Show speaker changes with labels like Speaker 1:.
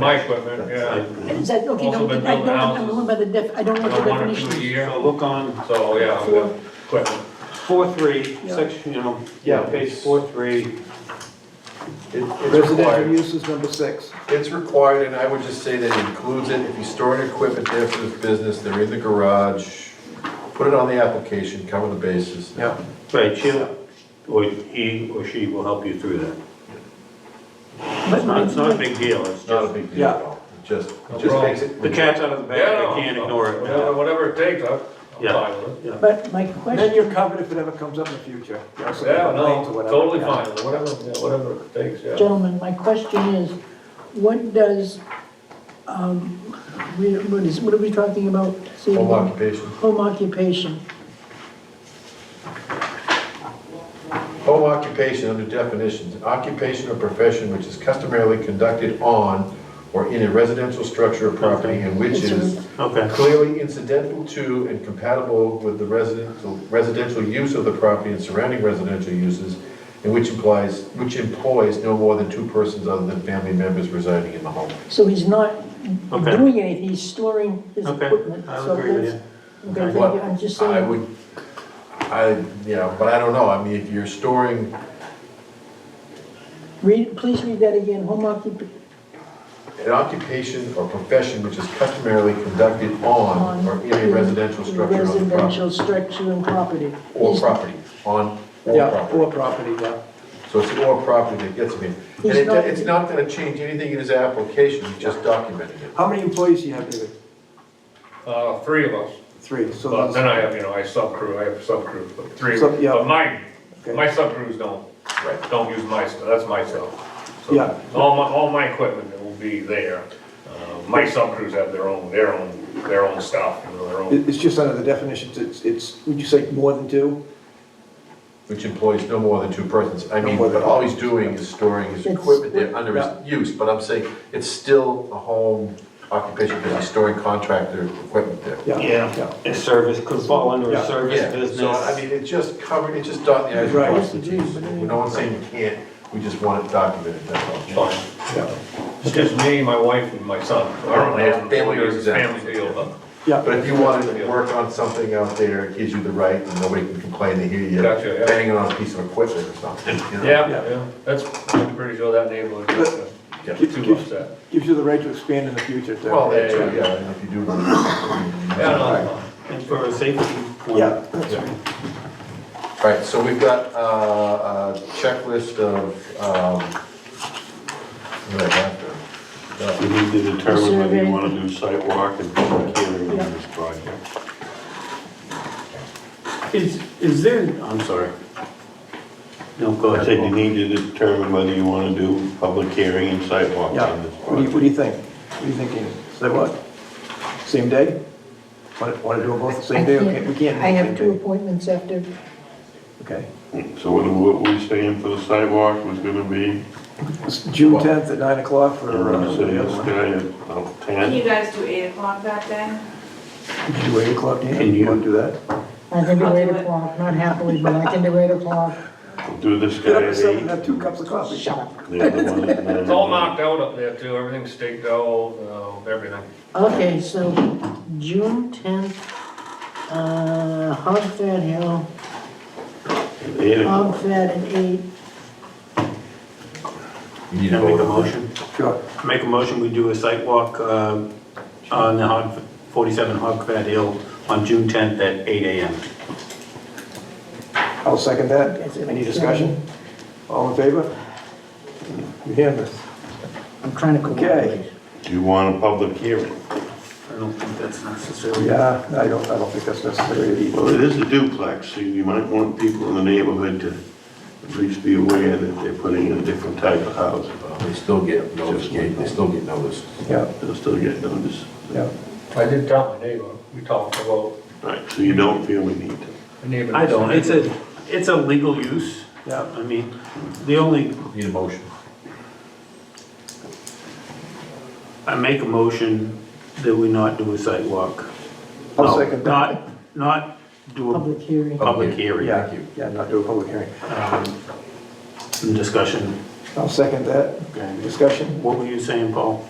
Speaker 1: My equipment, yeah.
Speaker 2: Is that, okay,
Speaker 1: Also
Speaker 2: no,
Speaker 1: been
Speaker 2: I
Speaker 1: building
Speaker 2: don't, I'm
Speaker 1: houses.
Speaker 2: going by the def, I don't know
Speaker 1: About
Speaker 2: the
Speaker 1: One or two a
Speaker 2: definition.
Speaker 1: year,
Speaker 3: So look on
Speaker 1: so, yeah, I've got equipment.
Speaker 3: four, three,
Speaker 2: Yeah.
Speaker 3: section, you know,
Speaker 4: Yeah.
Speaker 3: yeah, page four, three.
Speaker 4: It- It's
Speaker 5: Residential
Speaker 4: required,
Speaker 5: use is number six.
Speaker 4: it's required, and I would just say that includes it, if you store storing equipment there for this business, they're in the garage, put it on the application, cover the bases.
Speaker 3: Yeah.
Speaker 6: Right, she'll, or he or she will help you through that.
Speaker 2: But
Speaker 6: It's not, it's not a
Speaker 2: my,
Speaker 6: big deal, it's
Speaker 4: It's not a
Speaker 6: just,
Speaker 4: big deal at all, It just, it just makes it.
Speaker 6: the cat's out of the
Speaker 1: Yeah,
Speaker 6: bag,
Speaker 1: no,
Speaker 6: you can't ignore it
Speaker 1: Whatever,
Speaker 6: now.
Speaker 1: whatever it takes, I'm I'm
Speaker 6: Yeah.
Speaker 1: fine with it.
Speaker 6: Yeah.
Speaker 2: but my
Speaker 5: And then
Speaker 2: question,
Speaker 5: you're covered if it ever comes up in the future. You also can
Speaker 1: Yeah,
Speaker 5: complain
Speaker 1: no,
Speaker 5: to whatever.
Speaker 1: totally
Speaker 5: Yeah.
Speaker 1: fine, with it. whatever, yeah, whatever it takes, yeah.
Speaker 2: gentlemen, my question is, what does, um, we- what is, what are we talking about? this
Speaker 4: Home
Speaker 2: evening?
Speaker 4: occupation,
Speaker 2: Home occupation,
Speaker 4: home occupation under definitions, occupation or profession which is customarily conducted on or in a residential structure or property and which is
Speaker 6: Okay,
Speaker 4: clearly incidental to and compatible with the residential, residential use of the property and surrounding residential uses, and which implies, which employs no more than two persons other than family members residing in the home.
Speaker 2: so he's not
Speaker 6: Okay.
Speaker 2: doing anything, he's storing his
Speaker 6: Okay,
Speaker 2: equipment.
Speaker 6: I would
Speaker 2: so
Speaker 6: agree with
Speaker 2: that's- Okay,
Speaker 4: But
Speaker 2: thank you, I'm just
Speaker 4: I
Speaker 2: saying,
Speaker 4: would, I, yeah, but I don't know, I mean, if you're storing,
Speaker 2: read, please read that again, home occup,
Speaker 4: an occupation or profession which is customarily conducted on or in a residential structure on the property,
Speaker 2: Residential structure and property.
Speaker 4: or
Speaker 2: He's-
Speaker 4: property, on or
Speaker 5: Yeah,
Speaker 4: property.
Speaker 5: or property, yeah.
Speaker 4: So it's or property that gets me. And
Speaker 2: He's
Speaker 4: it,
Speaker 2: not-
Speaker 4: it's not gonna change anything in his application, he's just documenting it.
Speaker 5: How many employees do you have, David?
Speaker 1: Uh, three of us,
Speaker 5: Three, so
Speaker 1: but then
Speaker 5: that's,
Speaker 1: I have, you know, I subcrew, I have subcrew, but three,
Speaker 5: So, yeah.
Speaker 1: but mine,
Speaker 5: Okay.
Speaker 1: my subcrews don't,
Speaker 4: Right.
Speaker 1: don't use my stuff, that's my stuff. So,
Speaker 5: Yeah.
Speaker 1: All my, all my equipment will be there. Uh, My subcrews have their own, their own, their own stuff, you know, their own.
Speaker 5: it- it's just under the definitions, it's, it's, would you say more than two?
Speaker 4: Which employs no more than two persons. I
Speaker 5: No
Speaker 4: mean,
Speaker 5: more than
Speaker 4: but all he's doing is storing his
Speaker 2: It's-
Speaker 4: equipment there under his use, but I'm saying it's still a home occupation because he's storing contractor equipment there.
Speaker 5: Yeah.
Speaker 6: yeah, a service could fall under a
Speaker 5: Yeah.
Speaker 6: service
Speaker 4: Yeah,
Speaker 6: business.
Speaker 4: so I mean, it just covered, it just dot the i's
Speaker 5: Right.
Speaker 4: and cross the t's. No one's saying you can't, we just want it documented, that's all.
Speaker 1: Fine.
Speaker 5: Yeah.
Speaker 1: It's just me, my wife, and my son. I don't
Speaker 4: Yeah,
Speaker 1: have
Speaker 4: family
Speaker 1: employees, it's a
Speaker 4: exempt.
Speaker 1: family deal, but,
Speaker 5: Yeah.
Speaker 4: But if you wanted to work on something out there, it gives you the right and nobody can complain to hear you
Speaker 1: Gotcha, yeah.
Speaker 4: banging on a piece of equipment or something, you know?
Speaker 1: yeah,
Speaker 5: Yeah.
Speaker 1: yeah, that's, I'm pretty sure that neighborhood
Speaker 4: Yeah.
Speaker 1: is too upset.
Speaker 5: Gives you the right to expand in the future, too.
Speaker 4: Well, that too, yeah, and if you do.
Speaker 1: Yeah, no,
Speaker 6: And for a safety point.
Speaker 5: Yeah,
Speaker 4: All right, so we've got uh, a checklist of, um, what do I have there?
Speaker 6: You need to determine whether you wanna do sidewalk and public hearing on this project. Is, is there, I'm sorry. No, go ahead. You need to determine whether you wanna do public hearing and sidewalk
Speaker 5: yeah.
Speaker 6: on this
Speaker 5: What do you,
Speaker 6: project.
Speaker 5: what do you think? What are you thinking? Say what? Same day? Want, want to do them both the
Speaker 2: I
Speaker 5: same day, or
Speaker 2: can't-
Speaker 5: can't, we can't? do
Speaker 2: I have
Speaker 5: same
Speaker 2: two
Speaker 5: day?
Speaker 2: appointments after,
Speaker 5: Okay.
Speaker 6: So what, what we saying for the sidewalk was gonna be
Speaker 5: It's June tenth at nine o'clock for, uh,
Speaker 6: around City
Speaker 5: the
Speaker 6: of
Speaker 5: other one.
Speaker 6: Sky at about
Speaker 7: Can
Speaker 6: ten?
Speaker 7: you guys do eight o'clock that day?
Speaker 5: Could you do eight o'clock, Dan?
Speaker 6: Can
Speaker 5: You
Speaker 6: you-
Speaker 5: want to do that?
Speaker 2: I can do
Speaker 7: I'll do
Speaker 2: eight
Speaker 7: it.
Speaker 2: o'clock, not happily, but I can do eight o'clock.
Speaker 6: Do this
Speaker 5: Get
Speaker 6: guy
Speaker 5: up at
Speaker 6: at
Speaker 5: seven,
Speaker 6: eight?
Speaker 5: have two cups of coffee.
Speaker 2: Shut up.
Speaker 6: the other one at nine.
Speaker 1: it's all knocked out up there too, everything's staked out, uh, everything.
Speaker 2: Okay, so June tenth, uh, Hogford Hill,
Speaker 6: Eight o'clock.
Speaker 2: Hogford at eight.
Speaker 4: You
Speaker 6: Can
Speaker 4: need to
Speaker 6: I make
Speaker 4: vote
Speaker 6: a
Speaker 4: on that.
Speaker 6: motion?
Speaker 5: Sure.
Speaker 6: Make a motion, we do a site walk um, on the Hog- 47 Hogford Hill on June 10th at 8 AM.
Speaker 5: I'll second that.
Speaker 2: Yes, it
Speaker 5: Any
Speaker 2: makes
Speaker 5: discussion? All in favor? Unanimous.
Speaker 2: I'm trying to
Speaker 5: Okay.
Speaker 2: cooperate.
Speaker 6: Do you want a public hearing? I don't think that's necessary.
Speaker 5: Oh, Yeah, I don't, I don't think that's necessary either.
Speaker 6: Well, it is a duplex, so you might want people in the neighborhood to at least be aware that they're putting in a different type of house.
Speaker 4: They still get noticed, they still get noticed.
Speaker 5: Yeah,
Speaker 6: They'll still get notice.
Speaker 5: yeah.
Speaker 1: I did tell my neighbor, we talked about.
Speaker 6: Right, so you don't feel we need to. I don't, it's a, it's a legal use.
Speaker 5: Yeah.
Speaker 6: I mean, the only
Speaker 4: Need a motion.
Speaker 6: I make a motion that we not do a site walk.
Speaker 5: I'll
Speaker 6: No,
Speaker 5: second that.
Speaker 6: Not, not do a
Speaker 2: Public hearing.
Speaker 6: public hearing,
Speaker 5: Yeah, yeah, not do a public hearing.
Speaker 6: um, and discussion.
Speaker 5: I'll second that.
Speaker 6: Okay.
Speaker 5: Discussion?
Speaker 6: What were you saying, Paul?